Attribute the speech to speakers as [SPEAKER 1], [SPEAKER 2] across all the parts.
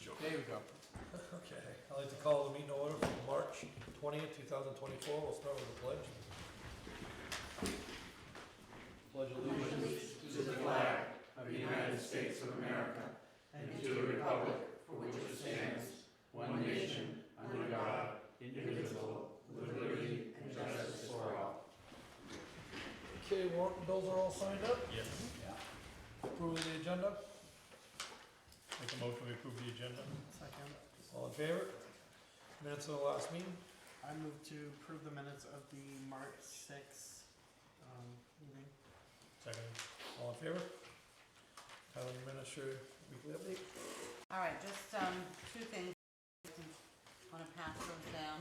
[SPEAKER 1] you go.
[SPEAKER 2] Okay, I'd like to call the meeting to order for March 20th, 2024. We'll start with the pledge.
[SPEAKER 3] Pledge
[SPEAKER 4] allegiance to the flag of the United States of America and to the republic for which it stands, one nation, under God, indivisible, with liberty and justice for all.
[SPEAKER 2] Okay, warrant and bills are all signed up? Yes. Approving the agenda?
[SPEAKER 1] Make a motion to approve the agenda.
[SPEAKER 5] Second.
[SPEAKER 2] All in favor? Minutes of the last meeting?
[SPEAKER 5] I move to approve the minutes of the March 6 um, meeting.
[SPEAKER 1] Second.
[SPEAKER 2] All in favor? Town Administrator Weekly Update?
[SPEAKER 6] All right, just um, two things. Want to pass those down.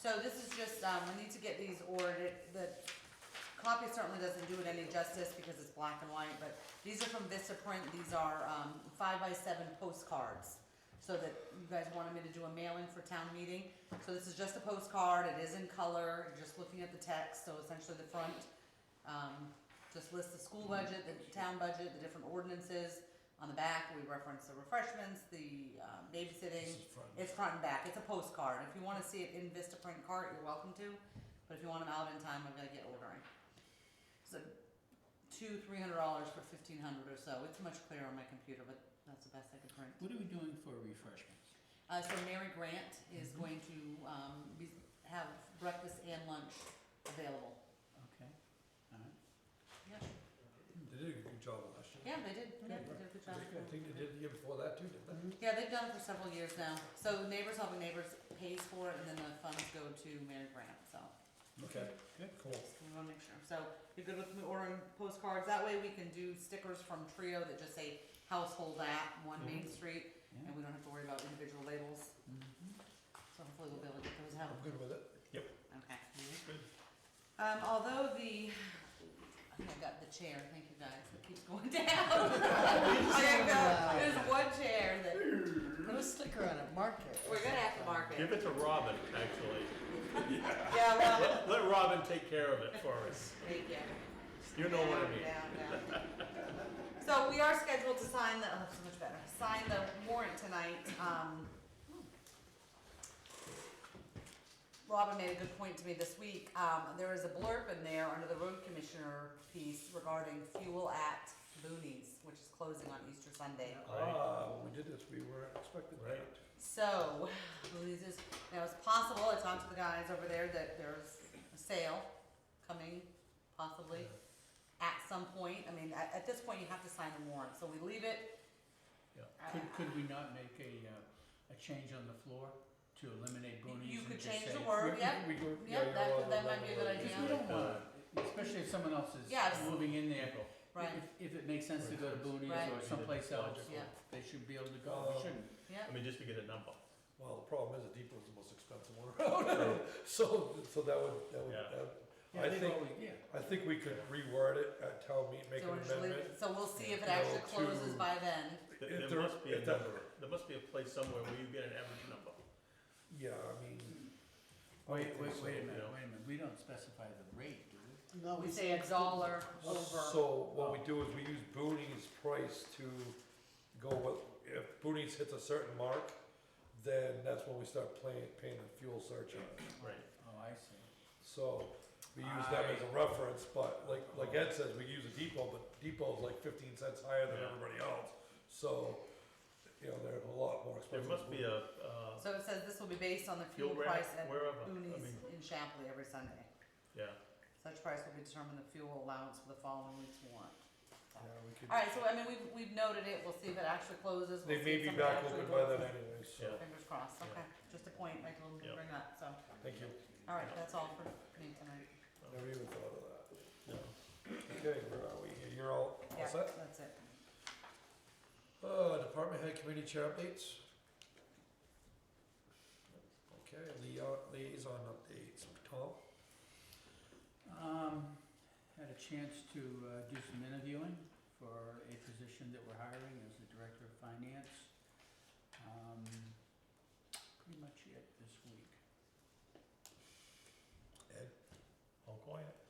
[SPEAKER 6] So this is just, um, we need to get these ordered. The copy certainly doesn't do it any justice because it's black and white, but these are from Vista Print. These are um, five by seven postcards. So that you guys wanted me to do a mailing for town meeting. So this is just a postcard. It is in color, You're just looking at the text, so essentially the front um, just lists the school budget, the town budget, the different ordinances. On the back, we reference the refreshments, the um,
[SPEAKER 2] This is
[SPEAKER 6] babysitting.
[SPEAKER 2] front and
[SPEAKER 6] It's front and back. It's a postcard. If you want to see it in Vista Print cart, you're welcome to. But if you want them out in time, I'm gonna get ordering. So two, three hundred dollars for fifteen hundred or so. It's much clearer on my computer, but that's the best I could print.
[SPEAKER 3] What are we doing for refreshments?
[SPEAKER 6] Uh, so Mary Grant
[SPEAKER 2] Mm-hmm.
[SPEAKER 6] is going to, um, be, have breakfast and lunch available.
[SPEAKER 3] Okay, all right.
[SPEAKER 6] Yeah,
[SPEAKER 2] They did a good job last year.
[SPEAKER 6] yeah, they did, yeah, they did a good job.
[SPEAKER 2] I think they did the year before that too, didn't they?
[SPEAKER 6] Yeah, they've done it for several years now. So Neighbors Helping Neighbors pays for it, and then the funds go to Mary Grant, so.
[SPEAKER 2] Okay, good, cool.
[SPEAKER 6] Just We wanna make sure. So you're good with me ordering postcards? That way we can do stickers from Trio that just say household app, one Main Street,
[SPEAKER 3] Yeah. Mm-hmm.
[SPEAKER 6] and we don't have to worry about individual labels. So hopefully we'll be able to get those out.
[SPEAKER 2] I'm good with it.
[SPEAKER 1] Yep.
[SPEAKER 6] Okay. Um, although the, I think I got the chair, thank you guys, that keeps going down. There you go. There's one chair that,
[SPEAKER 5] Put a sticker on it, mark
[SPEAKER 6] we're
[SPEAKER 5] it.
[SPEAKER 6] gonna have to mark it.
[SPEAKER 1] Give it to Robin, actually.
[SPEAKER 6] Yeah, well,
[SPEAKER 1] Let Robin take care of it for us.
[SPEAKER 6] thank you.
[SPEAKER 1] You know what I
[SPEAKER 6] Down,
[SPEAKER 1] mean.
[SPEAKER 6] down, down. So we are scheduled to sign the, oh, that's so much better, sign the warrant tonight. Um, Robin made a good point to me this week. Um, There is a blurb in there under the road commissioner piece regarding fuel at Boonies, which is closing on Easter Sunday.
[SPEAKER 2] Ah, when we did this, we weren't expecting that.
[SPEAKER 6] So, Louise is, now it's possible, I talked to the guys over there, that there's a sale coming, possibly, at some point. I mean, at, at this point, you have to sign the warrant, so we leave it.
[SPEAKER 3] Could, could we not make a, uh, a change on the floor to eliminate boonies?
[SPEAKER 6] You
[SPEAKER 3] and
[SPEAKER 6] could
[SPEAKER 3] just
[SPEAKER 6] change
[SPEAKER 3] say-
[SPEAKER 6] the word,
[SPEAKER 3] We-
[SPEAKER 6] yep,
[SPEAKER 3] we- we-
[SPEAKER 2] yeah, you're
[SPEAKER 6] yep, that, that might be a good
[SPEAKER 2] allowed to
[SPEAKER 3] Because we
[SPEAKER 6] idea.
[SPEAKER 3] don't want, uh, especially if someone else is
[SPEAKER 6] Yes.
[SPEAKER 3] moving in there.
[SPEAKER 6] Right.
[SPEAKER 3] If, if it makes sense to go to boonies
[SPEAKER 6] Right.
[SPEAKER 3] or someplace else,
[SPEAKER 6] Yeah.
[SPEAKER 3] they should be able to go, we shouldn't.
[SPEAKER 2] Mm-hmm.
[SPEAKER 1] I
[SPEAKER 6] Yep,
[SPEAKER 1] mean, just to get a number.
[SPEAKER 2] Well, the problem is the Depot's the most expensive one around, so, so that would, that would,
[SPEAKER 1] Yeah.
[SPEAKER 2] that-
[SPEAKER 3] Yeah,
[SPEAKER 2] I
[SPEAKER 3] they've
[SPEAKER 2] think,
[SPEAKER 3] always- Yeah.
[SPEAKER 2] I think we could reword it at town meeting, make
[SPEAKER 6] so
[SPEAKER 2] an
[SPEAKER 6] we'll just leave
[SPEAKER 2] amendment.
[SPEAKER 6] it, so we'll see if
[SPEAKER 2] you
[SPEAKER 6] it
[SPEAKER 2] know,
[SPEAKER 6] actually
[SPEAKER 2] to-
[SPEAKER 6] closes by then.
[SPEAKER 1] There-
[SPEAKER 2] If
[SPEAKER 1] There
[SPEAKER 2] there-
[SPEAKER 1] must be a
[SPEAKER 2] if that-
[SPEAKER 1] number. There must be a place somewhere where you get an average number.
[SPEAKER 2] Yeah, I mean. I would
[SPEAKER 3] Wait,
[SPEAKER 2] think
[SPEAKER 3] wait,
[SPEAKER 2] so.
[SPEAKER 3] wait a
[SPEAKER 1] yeah.
[SPEAKER 3] minute, wait a minute, we don't specify the rate, do we?
[SPEAKER 5] No,
[SPEAKER 6] We say a dollar over.
[SPEAKER 2] So what
[SPEAKER 1] Oh.
[SPEAKER 2] we do is we use Booney's price to go with, if Booney's hits a certain mark, then that's when we start playing, paying the fuel surcharge.
[SPEAKER 1] Right.
[SPEAKER 3] Oh, I see.
[SPEAKER 2] So we use that as a reference, but like, like Ed says, we use a depot, but depot's like fifteen cents higher than
[SPEAKER 1] Yeah.
[SPEAKER 2] everybody else. So, you know, they're a lot more
[SPEAKER 1] There
[SPEAKER 2] expensive.
[SPEAKER 1] must be a, uh,
[SPEAKER 6] So it says this will be based on the fuel
[SPEAKER 1] Fuel rate,
[SPEAKER 6] price at
[SPEAKER 1] wherever, I
[SPEAKER 6] Boonies
[SPEAKER 1] mean-
[SPEAKER 6] in Shapley every Sunday.
[SPEAKER 1] yeah.
[SPEAKER 6] Such price will be determined the fuel allowance for the following week's warrant.
[SPEAKER 2] Yeah, we could-
[SPEAKER 6] All right, so I mean, we've, we've noted it, we'll see if it actually closes. We'll
[SPEAKER 2] They
[SPEAKER 6] see
[SPEAKER 2] may
[SPEAKER 6] if
[SPEAKER 2] be
[SPEAKER 6] somebody
[SPEAKER 2] back
[SPEAKER 6] actually
[SPEAKER 2] open by
[SPEAKER 6] goes.
[SPEAKER 2] then anyway, so,
[SPEAKER 1] Yeah.
[SPEAKER 6] Fingers crossed, okay, just a point, I told them to
[SPEAKER 1] Yeah.
[SPEAKER 6] bring that, so,
[SPEAKER 2] thank you.
[SPEAKER 6] all right, that's all for me tonight.
[SPEAKER 2] Never even thought of that. Okay, where are we? You're all, all
[SPEAKER 6] Yeah,
[SPEAKER 2] set?
[SPEAKER 6] That's it.
[SPEAKER 2] Uh, department head committee chair updates? Okay, lia- liaison updates, Tom?
[SPEAKER 3] Um, had a chance to uh, do some interviewing for a position that we're hiring as the Director of Finance. Um, Pretty much it this week.
[SPEAKER 2] Ed?
[SPEAKER 1] All quiet.